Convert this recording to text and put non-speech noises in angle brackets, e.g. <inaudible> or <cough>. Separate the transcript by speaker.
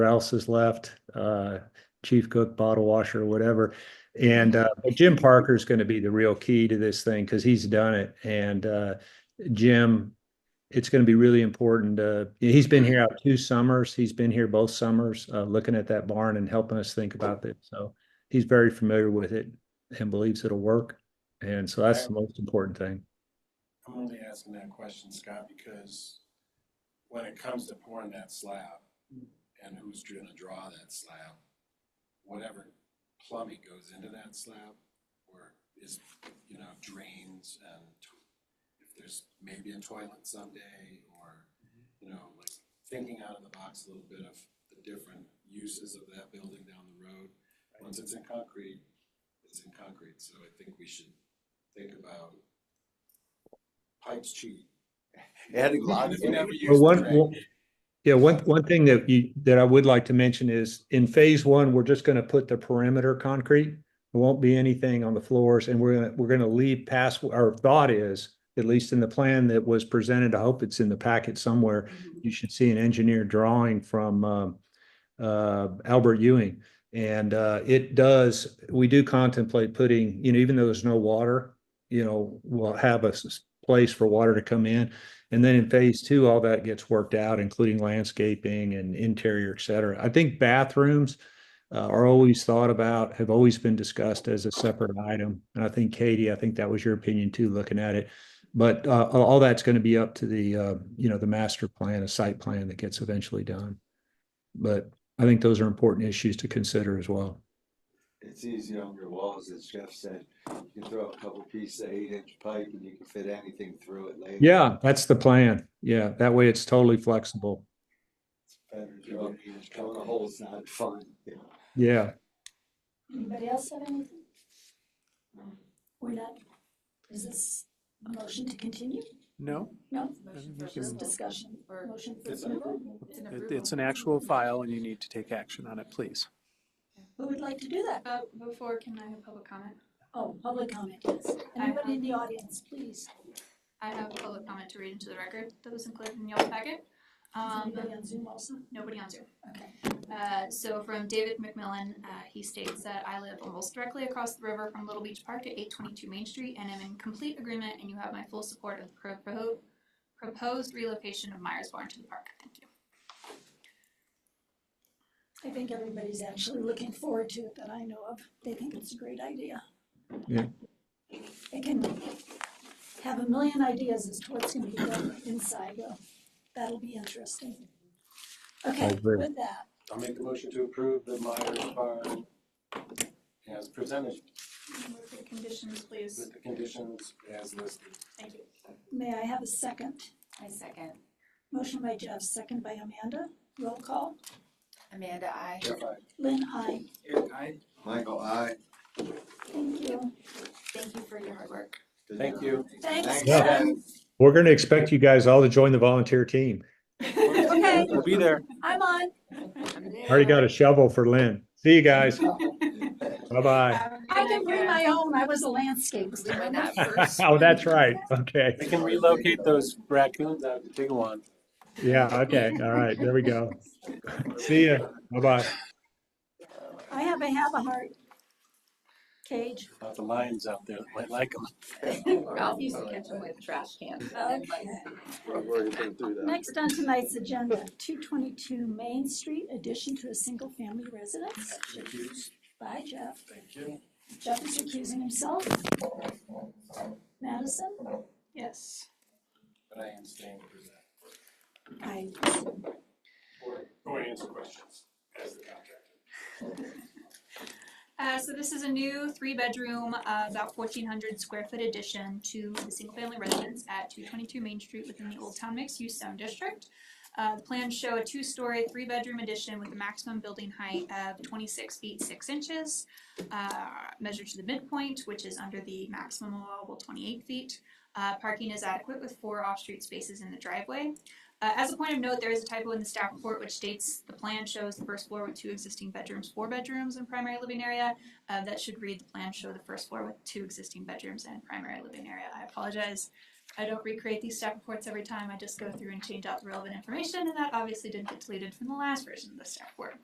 Speaker 1: Rouse has left, uh, chief cook, bottle washer, whatever. And, uh, but Jim Parker's gonna be the real key to this thing, cause he's done it. And, uh, Jim, it's gonna be really important. Uh, he's been here out two summers. He's been here both summers, uh, looking at that barn and helping us think about this. So he's very familiar with it and believes it'll work. And so that's the most important thing.
Speaker 2: I'm only asking that question, Scott, because when it comes to pouring that slab and who's gonna draw that slab, whatever plumbing goes into that slab or is, you know, drains and to- if there's maybe a toilet someday or, you know, like thinking out of the box a little bit of the different uses of that building down the road. Once it's in concrete, it's in concrete, so I think we should think about pipes cheap.
Speaker 3: Adding lots
Speaker 2: If you
Speaker 3: of-
Speaker 2: never use
Speaker 1: Well,
Speaker 2: the
Speaker 1: one,
Speaker 2: drain.
Speaker 1: one- yeah, one, one thing that you, that I would like to mention is in phase one, we're just gonna put the perimeter concrete. There won't be anything on the floors and we're gonna, we're gonna leave past, our thought is, at least in the plan that was presented, I hope it's in the packet somewhere. You should see an engineer drawing from, um, uh, Albert Ewing. And, uh, it does, we do contemplate putting, you know, even though there's no water, you know, we'll have a s- place for water to come in. And then in phase two, all that gets worked out, including landscaping and interior, et cetera. I think bathrooms uh, are always thought about, have always been discussed as a separate item. And I think Katie, I think that was your opinion too, looking at it. But uh, all all that's going to be up to the, uh, you know, the master plan, a site plan that gets eventually done. But I think those are important issues to consider as well.
Speaker 3: It's easy on your walls, as Jeff said. You can throw a couple pieces of eight inch pipe and you can fit anything through it later.
Speaker 1: Yeah, that's the plan. Yeah, that way it's totally flexible.
Speaker 3: Better than Drilling a hole's not fun. you know.
Speaker 1: Yeah.
Speaker 4: Anybody else have anything? We're not, is this a motion to continue?
Speaker 5: No,
Speaker 4: No,
Speaker 5: Motion for
Speaker 4: just
Speaker 5: approval.
Speaker 4: discussion or motion for
Speaker 2: It's an
Speaker 4: approval?
Speaker 5: it- it's an actual file and you need to take action on it, please.
Speaker 4: Who would like to do that?
Speaker 6: Uh, before, can I have public comment?
Speaker 4: Oh, public comment, yes. Anybody in the audience, please?
Speaker 6: I have a public comment to read into the record that was included in y'all's packet.
Speaker 4: Is
Speaker 6: Um,
Speaker 4: anybody on Zoom also?
Speaker 6: nobody on Zoom.
Speaker 4: Okay.
Speaker 6: Uh, so from David McMillan, uh, he states that I live almost directly across the river from Little Beach Park at eight twenty-two Main Street and am in complete agreement and you have my full support of the pro- pro- proposed relocation of Myers Barn to the park. Thank you.
Speaker 4: I think everybody's actually looking forward to it that I know of. They think it's a great idea.
Speaker 1: Yeah.
Speaker 4: They can have a million ideas as to what's gonna be done inside, though. That'll be interesting. Okay,
Speaker 1: agree.
Speaker 4: with that,
Speaker 2: I'll make the motion to approve the Myers Barn as presented
Speaker 6: Move the conditions, please.
Speaker 2: with the conditions as listed.
Speaker 6: Thank you.
Speaker 4: May I have a second?
Speaker 7: I second.
Speaker 4: Motion by Jeff, second by Amanda. Roll call.
Speaker 7: Amanda, I.
Speaker 2: Jeff, I.
Speaker 4: Lynn, I.
Speaker 2: Eric, I.
Speaker 3: Michael, I.
Speaker 4: Thank you.
Speaker 7: Thank you for your hard work.
Speaker 2: Thank you.
Speaker 4: Thanks,
Speaker 3: Thanks,
Speaker 4: Jeff.
Speaker 3: Jeff.
Speaker 1: We're going to expect you guys all to join the volunteer team.
Speaker 7: <laughs>
Speaker 4: Okay,
Speaker 5: We'll be there.
Speaker 4: I'm on.
Speaker 1: Already got a shovel for Lynn. See you guys. Bye-bye.
Speaker 4: I can bring my own. I was a landscape.
Speaker 7: We went
Speaker 4: designer.
Speaker 7: out <laughs> first.
Speaker 1: <laughs> Oh, that's right. Okay.
Speaker 2: We can relocate those raccoons out to Tigawan.
Speaker 1: Yeah, okay. All right. There we go. <laughs> See ya. Bye-bye.
Speaker 4: I have a have a heart cage.
Speaker 2: About the lions out there, might like them.
Speaker 7: Ralph used to catch them with trash cans.
Speaker 4: Okay.
Speaker 3: I've already been through that.
Speaker 4: Next on tonight's agenda, two twenty-two Main Street, addition to a single-family residence. Bye, Jeff.
Speaker 2: Thank you.
Speaker 4: Jeff is recusing himself. Madison?
Speaker 6: Yes.
Speaker 2: But I am staying for that.
Speaker 4: I.
Speaker 2: Or, or answer questions as the contractor.
Speaker 6: Uh, so this is a new three-bedroom, uh, about fourteen hundred square foot addition to the single-family residence at two twenty-two Main Street within the Old Town Mixed Use Zone District. Uh, the plans show a two-story, three-bedroom addition with a maximum building height of twenty-six feet, six inches, uh, measured to the midpoint, which is under the maximum allowable twenty-eight feet. Uh, parking is adequate with four off-street spaces in the driveway. Uh, as a point of note, there is a typo in the staff report which states the plan shows the first floor with two existing bedrooms, four bedrooms and primary living area. Uh, that should read the plan show the first floor with two existing bedrooms and primary living area. I apologize. I don't recreate these staff reports every time, I just go through and change out the relevant information, and that obviously didn't get deleted from the last version of the staff report.